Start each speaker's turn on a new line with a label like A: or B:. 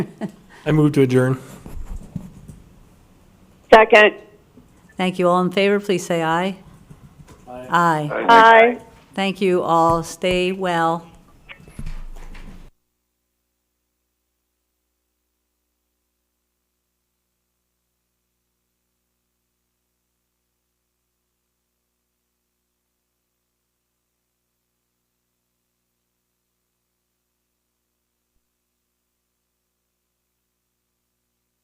A: I move to adjourn.
B: Second.
C: Thank you. All in favor, please say aye. Aye.
B: Aye.
C: Thank you all. Stay well.